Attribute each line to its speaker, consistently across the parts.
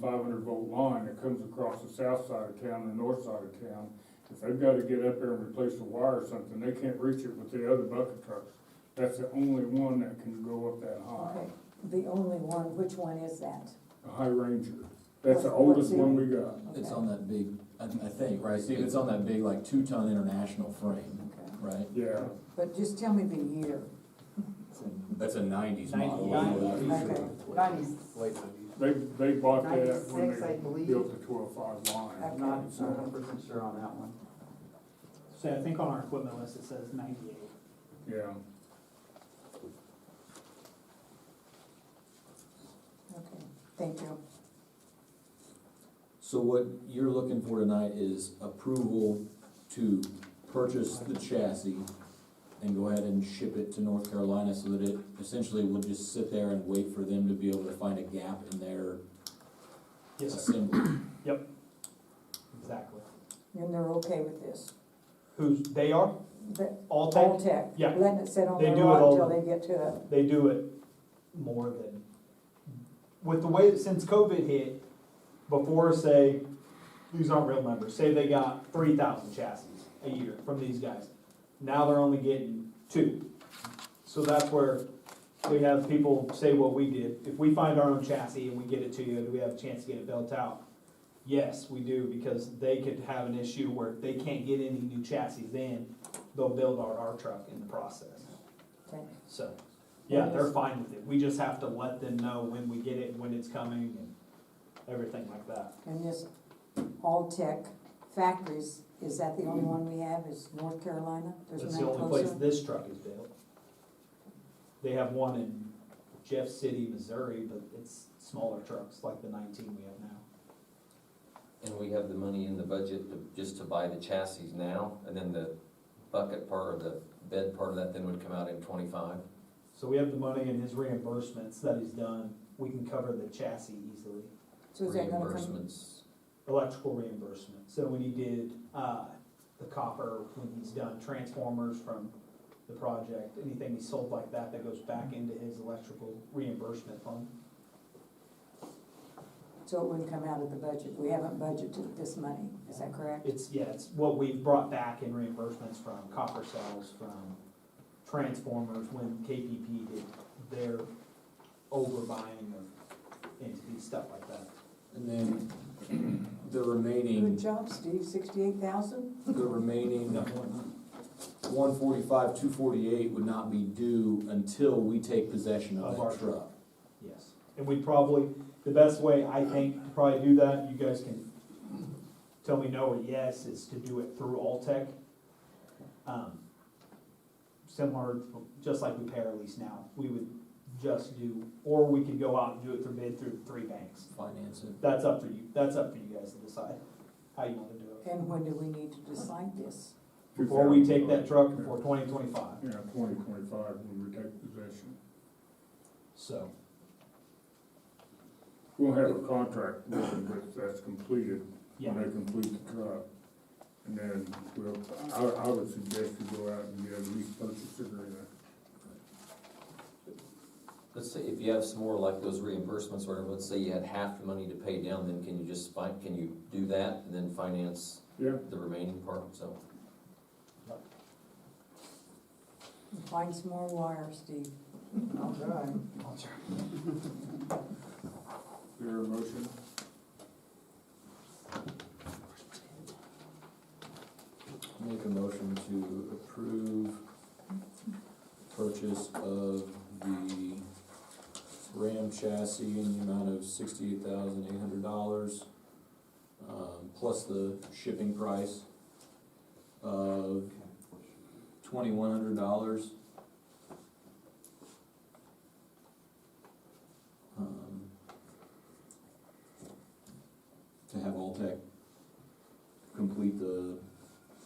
Speaker 1: five hundred volt line that comes across the south side of town and north side of town. If they've gotta get up there and replace a wire or something, they can't reach it with the other bucket trucks. That's the only one that can go up that high,
Speaker 2: Okay, the only one, which one is that?
Speaker 1: a High Ranger. That's the
Speaker 2: What's- what's
Speaker 1: oldest
Speaker 2: the-
Speaker 1: one we got.
Speaker 3: It's
Speaker 2: Okay.
Speaker 3: on that big, I, I think, right, Steve, it's on that big like two-ton international frame,
Speaker 2: Okay.
Speaker 3: right?
Speaker 1: Yeah,
Speaker 2: But just tell me the year,
Speaker 3: That's a nineties
Speaker 4: Ninety-
Speaker 2: okay,
Speaker 4: Nineties,
Speaker 5: Late nineties.
Speaker 1: they, they bought that when
Speaker 4: ninety-six, I
Speaker 1: they
Speaker 4: believe.
Speaker 1: built the twelve-five line.
Speaker 4: I'm not a hundred percent sure on that one.
Speaker 6: So I think on our equipment list, it says ninety-eight.
Speaker 1: Yeah,
Speaker 2: okay, thank you.
Speaker 3: So what you're looking for tonight is approval to purchase the chassis and go ahead and ship it to North Carolina so that it essentially will just sit there and wait for them to be able to find a gap in their assembly.
Speaker 6: Exactly.
Speaker 2: And they're okay with this,
Speaker 6: Who's, they are,
Speaker 2: the,
Speaker 6: all
Speaker 2: all
Speaker 6: tech,
Speaker 2: tech,
Speaker 6: yeah.
Speaker 2: letting it sit on
Speaker 6: They
Speaker 2: their
Speaker 6: do it
Speaker 2: lot
Speaker 6: all.
Speaker 2: until they get to it.
Speaker 6: they do it more than, with the way, that since COVID hit, before, say, these aren't real numbers, say they got three thousand chassis a year from these guys. Now they're only getting two. So that's where we have people say what we did. If we find our own chassis and we get it to you, do we have a chance to get it built out? Yes, we do, because they could have an issue where if they can't get any new chassis in, they'll build our, our truck in the process.
Speaker 2: Okay.
Speaker 6: So, yeah, they're fine with it. We just have to let them know when we get it, when it's coming and everything like that.
Speaker 2: And this all tech factories, is that the only one we have, is North Carolina? There's
Speaker 6: That's
Speaker 2: none
Speaker 6: the only place
Speaker 2: closer?
Speaker 6: this truck is built. They have one in Jeff City, Missouri, but it's smaller trucks, like the nineteen we have now.
Speaker 7: And we have the money in the budget to- just to buy the chassis now, and then the bucket part or the bed part of that then would come out in twenty-five?
Speaker 6: So we have the money in his reimbursements that he's done. We can cover the chassis easily,
Speaker 2: So is that gonna come,
Speaker 7: Reimbursements,
Speaker 6: electrical reimbursement. So when he did, uh, the copper, when he's done transformers from the project, anything he sold like that, that goes back into his electrical reimbursement fund.
Speaker 2: so it wouldn't come out of the budget, we haven't budgeted this money, is that correct?
Speaker 6: It's, yeah, it's what we've brought back in reimbursements from copper cells, from transformers, when KPP did their overbuying of entity, stuff like that.
Speaker 3: And then the
Speaker 2: Good
Speaker 3: remaining,
Speaker 2: job, Steve, sixty-eight thousand?
Speaker 3: the remaining one forty-five, two forty-eight would not be due until we take possession of
Speaker 6: Of our
Speaker 3: that truck.
Speaker 6: Yes, and we probably, the best way I think to probably do that, you guys can tell me no or yes, is to do it through Altech. Um, Similar, just like we pay our lease now, we would just do, or we could go out and do it through bid through three banks.
Speaker 3: Finance it.
Speaker 6: That's up to you, that's up for you guys to decide how you wanna do it.
Speaker 2: And when do we need to decide this?
Speaker 6: Before we take that truck before twenty twenty-five,
Speaker 1: Yeah, twenty twenty-five when we take possession.
Speaker 6: so,
Speaker 1: We'll have a contract with them, but that's completed,
Speaker 6: yeah.
Speaker 1: when they complete the truck. And then we'll, I, I would suggest you go out and get a lease purchase agreement.
Speaker 7: let's say, if you have some more like those reimbursements, or let's say you had half the money to pay down, then can you just fin, can you do that and then finance
Speaker 1: Yeah,
Speaker 7: the remaining part, so?
Speaker 2: Find some more wire, Steve.
Speaker 4: I'll try.
Speaker 1: is there a motion?
Speaker 3: Make a motion to approve purchase of the Ram chassis in the amount of sixty-eight thousand eight hundred dollars, um, plus the shipping price of twenty-one hundred dollars. Um, To have Altech complete the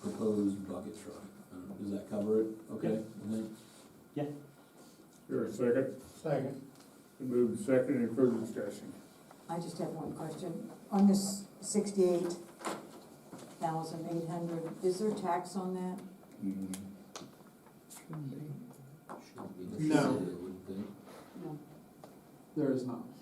Speaker 3: proposed bucket truck. Um, Does that cover it? Okay? I think-
Speaker 1: Is there a second?
Speaker 4: Second.
Speaker 1: Move to second, any further discussion?
Speaker 2: I just have one question. On this sixty-eight thousand eight hundred, is there tax on that?
Speaker 3: Should be
Speaker 4: No.
Speaker 3: the city, I would think.
Speaker 4: There is not.